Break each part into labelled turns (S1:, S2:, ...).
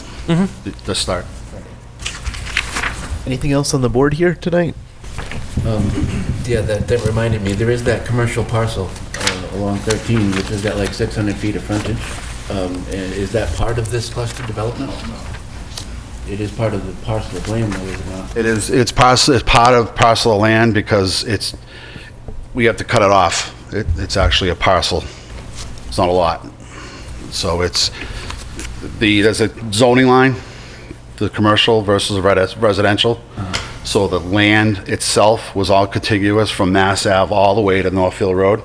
S1: th- Mm-hmm. the start.
S2: Anything else on the board here tonight?
S3: Yeah, that, that reminded me, there is that commercial parcel uh, along 13, which has got like 600 feet of frontage. Um, and Is that part of this cluster development? It is part of the parcel of land, though, is it not?
S1: It is, it's parcel, it's part of parcel of land because it's, we have to cut it off. It, it's actually a parcel. It's not a lot. So it's, the, there's a zoning line, the commercial versus res- residential. So the land itself was all contiguous from Mass Ave all the way to Northfield Road.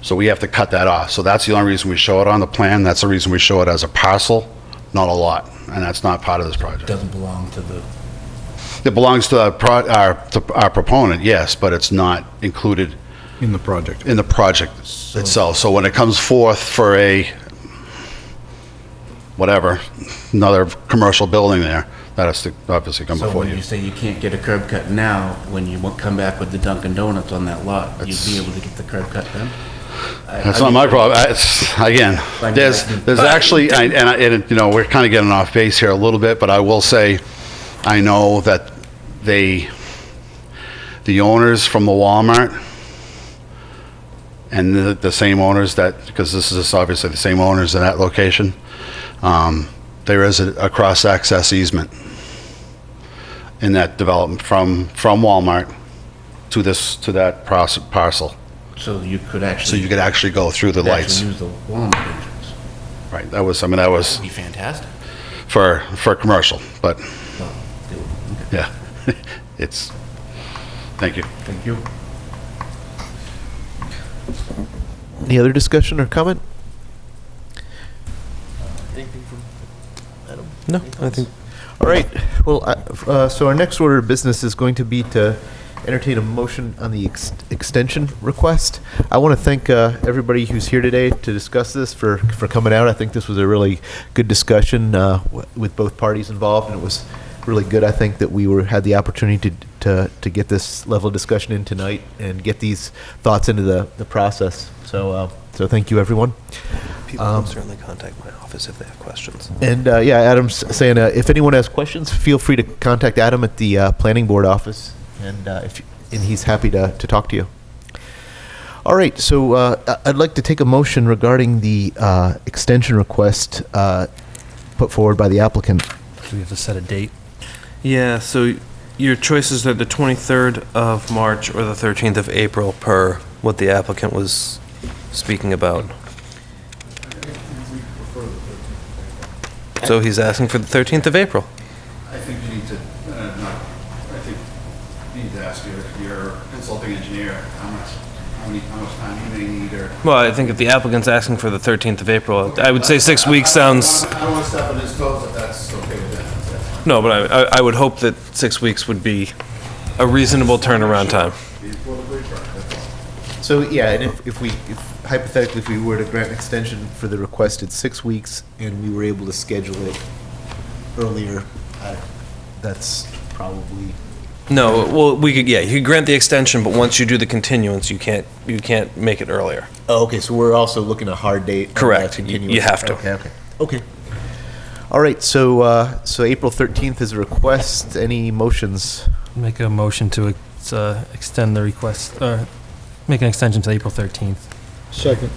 S1: So we have to cut that off. So that's the only reason we show it on the plan. That's the reason we show it as a parcel, not a lot. And that's not part of this project.
S3: Doesn't belong to the,
S1: It belongs to our pro- our, to our proponent, yes, but it's not included
S4: in the project.
S1: in the project itself. So when it comes forth for a, whatever, another commercial building there, that has to obviously come
S3: so
S1: before
S3: when you
S1: you.
S3: say you can't get a curb cut now, when you won't come back with the Dunkin' Donuts on that lot, you'd be
S1: That's-
S3: able to get the curb cut then? I- I
S1: That's not
S3: mean,
S1: my problem. I- It's, again,
S3: Fine,
S1: there's,
S3: yeah.
S1: there's actually, I- and, I- and, you know, we're kind of getting off base here a little bit, but I will say, I know that they, the owners from the Walmart and the, the same owners that, because this is obviously the same owners in that location, um, there is a, a cross-access easement in that development from, from Walmart to this, to that pros- parcel.
S3: So you could
S1: So
S3: actually.
S1: you could actually go through the
S3: could actually
S1: lights.
S3: Use the Walmart entrance.
S1: Right, that was, I mean, that was
S3: Be fantastic.
S1: for, for commercial, but,
S3: Well, it would- okay.
S1: yeah, it's, thank you.
S3: Thank you.
S2: Any other discussion or comment? No, I think. All right. Well, I- uh, so our next order of business is going to be to entertain a motion on the ex- extension request. I want to thank uh, everybody who's here today to discuss this for, for coming out. I think this was a really good discussion uh, w- with both parties involved, and it was really good. I think that we were had the opportunity to to, to get this level of discussion in tonight and get these thoughts into the, the process. So uh, so thank you everyone.
S5: People can certainly contact my office if they have questions.
S2: And uh, yeah, Adam's saying uh, if anyone has questions, feel free to contact Adam at the uh, planning board office, and uh, if and he's happy to, to talk to you. All right, so uh, I- I'd like to take a motion regarding the uh, extension request uh, put forward by the applicant.
S5: Do we have to set a date?
S6: Yeah, so your choices are the 23rd of March or the 13th of April per what the applicant was speaking about. So he's asking for the 13th of April.
S1: I think you need to, uh, not, I think you need to ask your, your consulting engineer how much, how many, how much time you may need or.
S6: Well, I think if the applicant's asking for the 13th of April, I would say six weeks sounds,
S1: I don't want to step on his toes if that's okay with that.
S6: no, but I, I- I would hope that six weeks would be a reasonable turnaround time.
S2: So yeah, and if, if we if hypothetically if we were to grant an extension for the requested six weeks, and we were able to schedule it earlier, I, that's probably
S6: No, well, we could, yeah, you could grant the extension, but once you do the continuance, you can't, you can't make it earlier.
S2: Oh, okay, so we're also looking at hard date. on
S6: Correct.
S2: that
S6: You-
S2: continuous-
S6: you have to.
S2: Okay, okay. Okay. All right, so, uh, so April 13th is a request. Any motions?
S7: Make a motion to ex- uh, extend the request, or make an extension to April 13th.
S4: Second.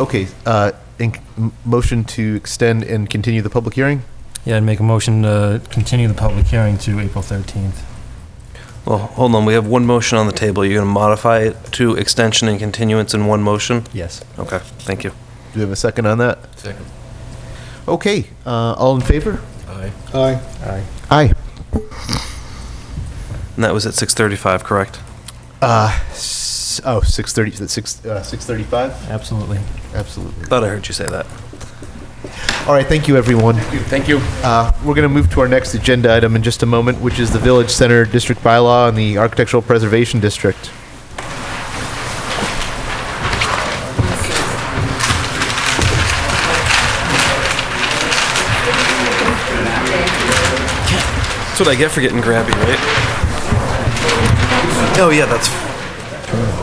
S2: Okay, uh, in- m- motion to extend and continue the public hearing?
S7: Yeah, and make a motion to continue the public hearing to April 13th.
S6: Well, hold on, we have one motion on the table. You're going to modify it to extension and continuance in one motion?
S7: Yes.
S6: Okay, thank you.
S2: Do we have a second on that?
S3: Second.
S2: Okay, uh, all in favor?
S3: Aye.
S4: Aye.
S2: Aye.
S6: And that was at 6:35, correct?
S2: Uh, s- oh, 6:30, is it six- uh, 6:35?
S7: Absolutely.
S2: Absolutely.
S6: Thought I heard you say that.
S2: All right, thank you, everyone.
S3: Thank you.
S2: Uh, We're going to move to our next agenda item in just a moment, which is the Village Center District Bylaw and the Architectural Preservation District.
S6: That's what I get for getting grabby, right? Oh, yeah, that's,